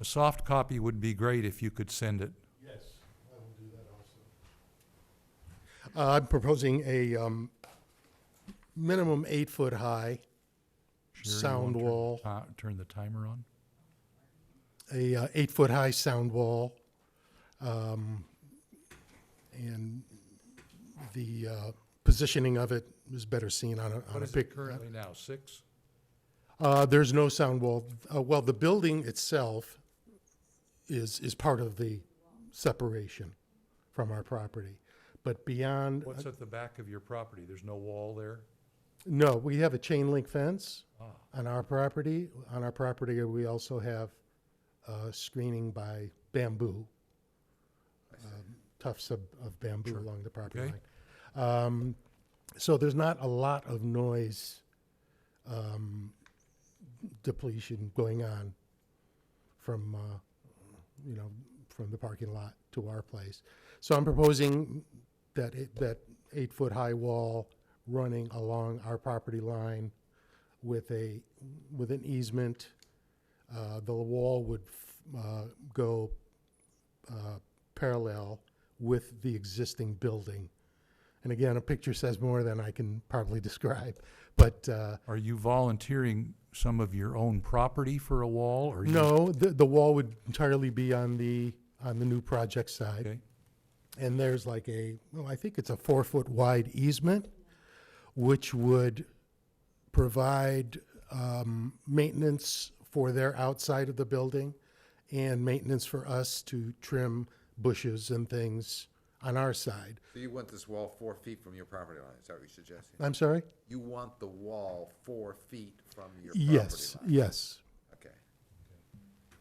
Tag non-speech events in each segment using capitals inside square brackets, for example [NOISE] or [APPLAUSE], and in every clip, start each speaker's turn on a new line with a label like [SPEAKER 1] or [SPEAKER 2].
[SPEAKER 1] A soft copy would be great if you could send it.
[SPEAKER 2] Yes, I will do that also. Uh, I'm proposing a um, minimum eight-foot-high
[SPEAKER 1] Sherry, you
[SPEAKER 2] sound
[SPEAKER 1] wanna turn-
[SPEAKER 2] wall,
[SPEAKER 1] uh, Turn the timer on.
[SPEAKER 2] a uh, eight-foot-high sound wall. um, And the uh, positioning of it is better seen on a, on
[SPEAKER 1] What
[SPEAKER 2] a
[SPEAKER 1] is it
[SPEAKER 2] pic.
[SPEAKER 1] currently now, six?
[SPEAKER 2] Uh, There's no sound wall. Uh, Well, the building itself is, is part of the separation from our property. But beyond,
[SPEAKER 1] What's at the back of your property? There's no wall there?
[SPEAKER 2] No, we have a chain link fence
[SPEAKER 1] Ah.
[SPEAKER 2] on our property. On our property, we also have uh, screening by bamboo, um, tufts of of bamboo along the property
[SPEAKER 1] Okay.
[SPEAKER 2] line. Um, So there's not a lot of noise um, depletion going on from, uh, you know, from the parking lot to our place. So I'm proposing that, it- that eight-foot-high wall running along our property line with a, with an easement. Uh, The wall would f- uh, go uh, parallel with the existing building. And again, a picture says more than I can probably [LAUGHS] describe, but uh,
[SPEAKER 1] Are you volunteering some of your own property for a wall or? you-
[SPEAKER 2] no, the, the wall would entirely be on the, on the new project side.
[SPEAKER 1] Okay,
[SPEAKER 2] And there's like a, well, I think it's a four foot wide easement, which would provide um, maintenance for their outside of the building and maintenance for us to trim bushes and things on our side.
[SPEAKER 3] So you want this wall four feet from your property line, is that what you're suggesting?
[SPEAKER 2] I'm sorry?
[SPEAKER 3] You want the wall four feet from your property line?
[SPEAKER 2] Yes, yes.
[SPEAKER 3] Okay.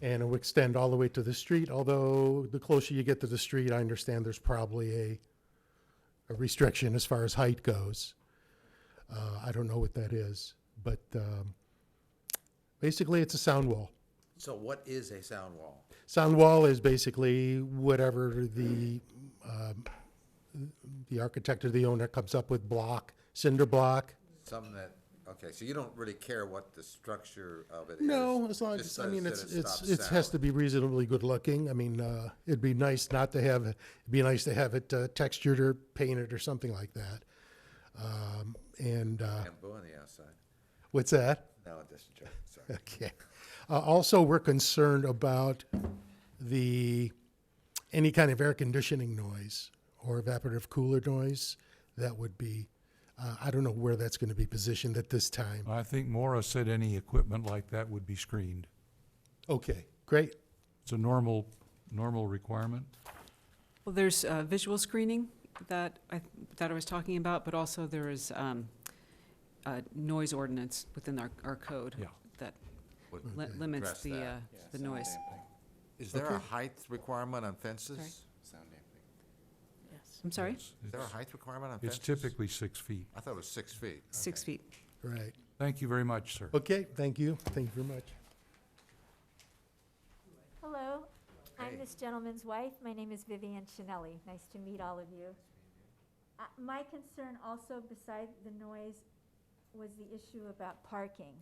[SPEAKER 2] And it would extend all the way to the street, although the closer you get to the street, I understand there's probably a, a restriction as far as height goes. Uh, I don't know what that is, but, um, basically it's a sound wall.
[SPEAKER 3] So what is a sound wall?
[SPEAKER 2] Sound wall is basically whatever the, um, the architect or the owner comes up with block, cinder block.
[SPEAKER 3] Something that, okay, so you don't really care what the structure of it is?
[SPEAKER 2] No, as long
[SPEAKER 3] just
[SPEAKER 2] as, I
[SPEAKER 3] says
[SPEAKER 2] mean,
[SPEAKER 3] that
[SPEAKER 2] it's,
[SPEAKER 3] it
[SPEAKER 2] it's,
[SPEAKER 3] stops
[SPEAKER 2] it has to
[SPEAKER 3] sound.
[SPEAKER 2] be reasonably good looking. I mean, uh, it'd be nice not to have, it'd be nice to have it uh, textured or painted or something like that. Um, and, uh,
[SPEAKER 3] Bamboo on the outside.
[SPEAKER 2] what's that? [LAUGHS]
[SPEAKER 3] No, that's a joke, sorry.
[SPEAKER 2] Okay. Uh, also, we're concerned about the, any kind of air conditioning noise or evaporative cooler noise that would be, uh, I don't know where that's gonna be positioned at this time.
[SPEAKER 1] I think Maura said any equipment like that would be screened.
[SPEAKER 2] Okay, great.
[SPEAKER 1] It's a normal, normal requirement.
[SPEAKER 4] Well, there's uh, visual screening that I, that I was talking about, but also there is um, uh, noise ordinance within our, our code
[SPEAKER 1] Yeah.
[SPEAKER 4] that
[SPEAKER 3] [LAUGHS] Would-
[SPEAKER 4] li- limits
[SPEAKER 3] Address
[SPEAKER 4] the,
[SPEAKER 3] that.
[SPEAKER 4] uh, the noise.
[SPEAKER 3] Is there a height requirement on fences?
[SPEAKER 4] Sorry?
[SPEAKER 3] Is
[SPEAKER 4] I'm sorry?
[SPEAKER 1] It's-
[SPEAKER 3] there a
[SPEAKER 1] it's-
[SPEAKER 3] height requirement on
[SPEAKER 1] It's
[SPEAKER 3] fences?
[SPEAKER 1] typically six feet.
[SPEAKER 3] I thought it was six feet.
[SPEAKER 4] Six
[SPEAKER 3] Okay.
[SPEAKER 4] feet.
[SPEAKER 2] Right.
[SPEAKER 1] Thank you very much, sir.
[SPEAKER 2] Okay, thank you. Thank you very much.
[SPEAKER 5] Hello,
[SPEAKER 3] Hey.
[SPEAKER 5] I'm this gentleman's wife. My name is Vivian Chinelli. Nice to meet all of you. Uh, My concern also, beside the noise, was the issue about parking.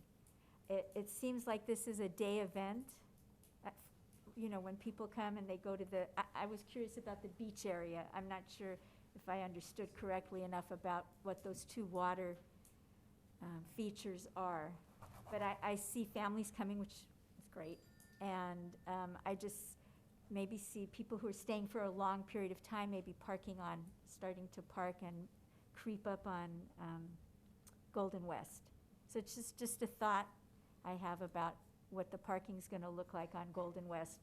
[SPEAKER 5] It, it seems like this is a day event. Uh, You know, when people come and they go to the, I, I was curious about the beach area. I'm not sure if I understood correctly enough about what those two water um, features are. But I, I see families coming, which is great. And um, I just maybe see people who are staying for a long period of time, maybe parking on, starting to park and creep up on um, Golden West. So it's just, just a thought I have about what the parking's going to look like on Golden West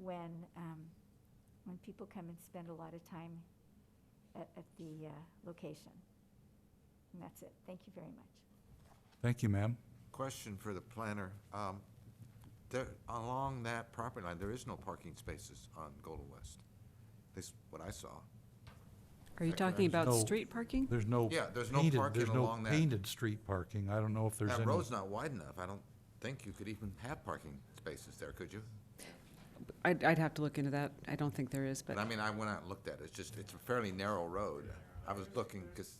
[SPEAKER 5] when, um, when people come and spend a lot of time at, at the uh, location. And that's it. Thank you very much.
[SPEAKER 1] Thank you, ma'am.
[SPEAKER 3] Question for the planner. Um, There, along that property line, there is no parking spaces on Golden West. This is what I saw.
[SPEAKER 4] Are you
[SPEAKER 3] Second.
[SPEAKER 4] talking about
[SPEAKER 1] No.
[SPEAKER 4] street parking?
[SPEAKER 1] There's no.
[SPEAKER 3] Yeah, there's no
[SPEAKER 1] painted-
[SPEAKER 3] parking
[SPEAKER 1] there's no
[SPEAKER 3] along that.
[SPEAKER 1] Painted street parking. I don't know if there's any.
[SPEAKER 3] That road's not wide enough. I don't think you could even have parking spaces there, could you?
[SPEAKER 4] I'd, I'd have to look into that. I don't think there is, but
[SPEAKER 3] But I mean, I went out and looked at it. It's just, it's a fairly narrow road. I was looking, because